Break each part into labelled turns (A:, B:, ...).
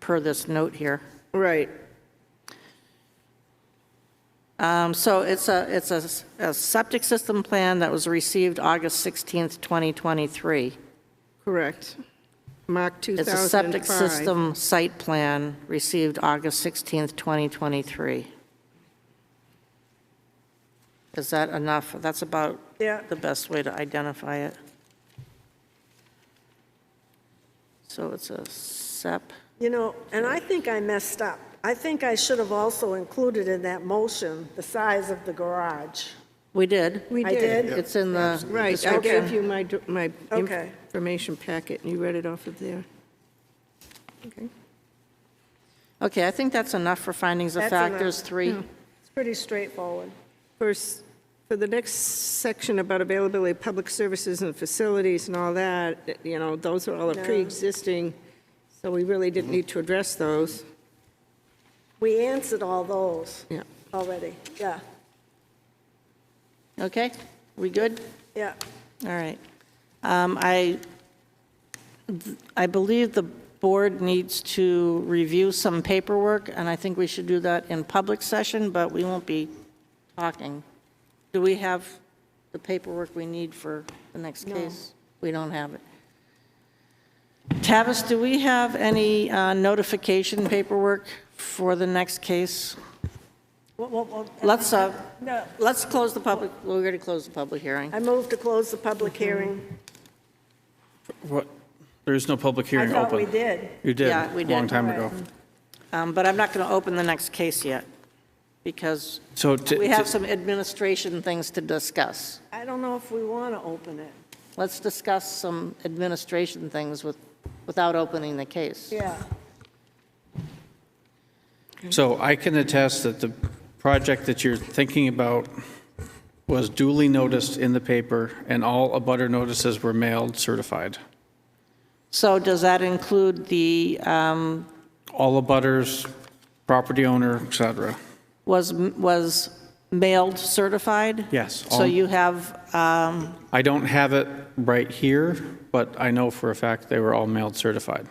A: per this note here.
B: Right.
A: Um, So it's a, it's a s- a septic system plan that was received August 16th, 2023.
B: Correct. Mark
A: It's
B: 2005.
A: a septic system site plan received August 16th, 2023. Is that enough? That's about
B: Yeah.
A: the best way to identify it. So it's a sep,
C: You know, and I think I messed up. I think I should have also included in that motion the size of the garage.
A: we did.
B: We
C: I
B: did.
C: did.
A: It's in the
B: Right, I
A: description.
B: gave you my, do- my
C: Okay.
B: information packet, and you read it off of there. Okay.
A: Okay, I think that's enough for findings of
C: That's enough.
A: factors three.
C: It's pretty straightforward.
B: First, for the next section about availability of public services and facilities and all that, you know, those are all
C: No.
B: pre-existing, so we really didn't need to address those.
C: We answered all those
B: Yeah.
C: already. Yeah,
A: Okay, we good?
C: yeah.
A: All right. Um, I, I believe the board needs to review some paperwork, and I think we should do that in public session, but we won't be talking. Do we have the paperwork we need for the next case? We don't have it. Tavis, do we have any uh, notification paperwork for the next case?
C: Well, well, well,
A: Let's, uh,
C: No,
A: let's close the public, we're going to close the public hearing.
C: I move to close the public hearing.
D: What? There is no public
C: I
D: hearing
C: thought we
D: open.
C: did.
D: You did,
A: Yeah, we
D: long
A: did.
D: time
C: All
D: ago.
A: Um, But I'm not going to open the next case yet, because
D: So to-
A: we have
D: to-
A: some administration things to discuss.
C: I don't know if we want to open it.
A: Let's discuss some administration things with, without opening the case.
C: Yeah.
D: So I can attest that the project that you're thinking about was duly noticed in the paper, and all abutter notices were mailed certified.
A: So does that include the, um,
D: All abutters, property owner, et cetera.
A: was, was mailed certified?
D: Yes,
A: So
D: all-
A: you have, um,
D: I don't have it right here, but I know for a fact they were all mailed certified.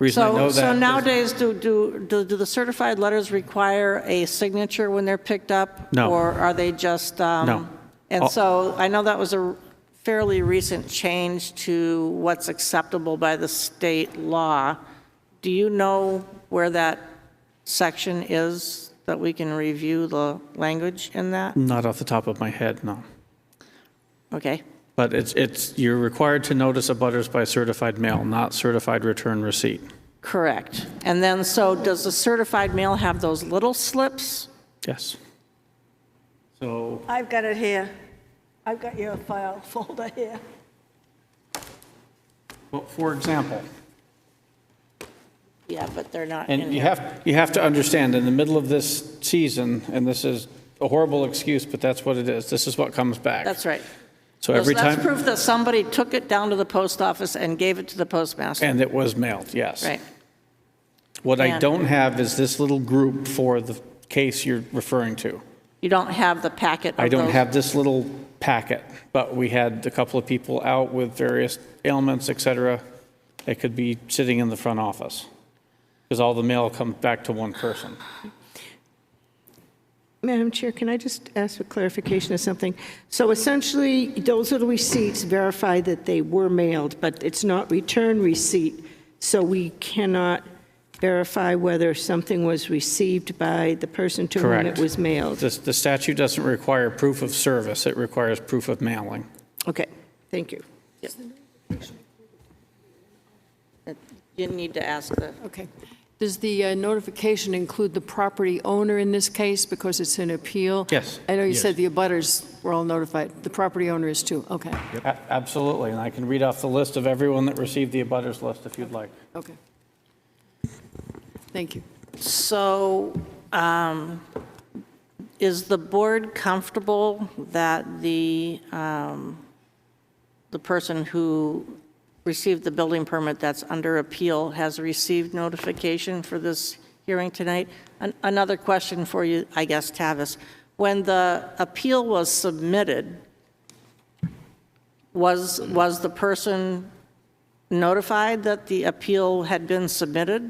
D: Reason I know
A: so,
D: that.
A: so
D: is-
A: nowadays, do, do, do do the certified letters require a signature when they're picked up?
D: No.
A: Or are they just? um,
D: No.
A: And
D: All-
A: so I know that was a fairly recent change to what's acceptable by the state law. Do you know where that section is that we can review the language in that?
D: Not off the top of my head, no.
A: Okay,
D: But it's, it's, you're required to notice abutters by certified mail, not certified return receipt.
A: correct. And then, so does the certified mail have those little slips?
D: Yes. So
C: I've got it here. I've got your file folder here.
D: Well, for example,
A: Yeah, but they're not in
D: and you
A: here.
D: have, you have to understand, in the middle of this season, and this is a horrible excuse, but that's what it is, this is what comes back.
A: That's right.
D: So every
A: So That's
D: time,
A: proof that somebody took it down to the post office and gave it to the postmaster.
D: and it was mailed, yes.
A: Right.
D: What I
A: And-
D: don't have is this little group for the case you're referring to.
A: You don't have the packet of
D: I don't
A: those-
D: have this little packet, but we had a couple of people out with various ailments, et cetera, that could be sitting in the front office, because all the mail comes back to one person.
B: Madam Chair, can I just ask for clarification of something? So essentially, those little receipts verify that they were mailed, but it's not return receipt, so we cannot verify whether something was received by the person to whom it
D: Correct.
B: was mailed.
D: The the statute doesn't require proof of service, it requires proof of mailing.
B: Okay, thank you.
A: You need to ask the,
E: Okay. Does the uh, notification include the property owner in this case because it's an appeal?
D: Yes.
E: I know you
D: Yes.
E: said the abutters were all notified. The property owner is too. Okay,
D: A- Absolutely, and I can read off the list of everyone that received the abutters list if you'd like.
E: okay. Thank you.
A: so um, is the board comfortable that the, um, the person who received the building permit that's under appeal has received notification for this hearing tonight? An- Another question for you, I guess, Tavis. When the appeal was submitted, was, was the person notified that the appeal had been submitted?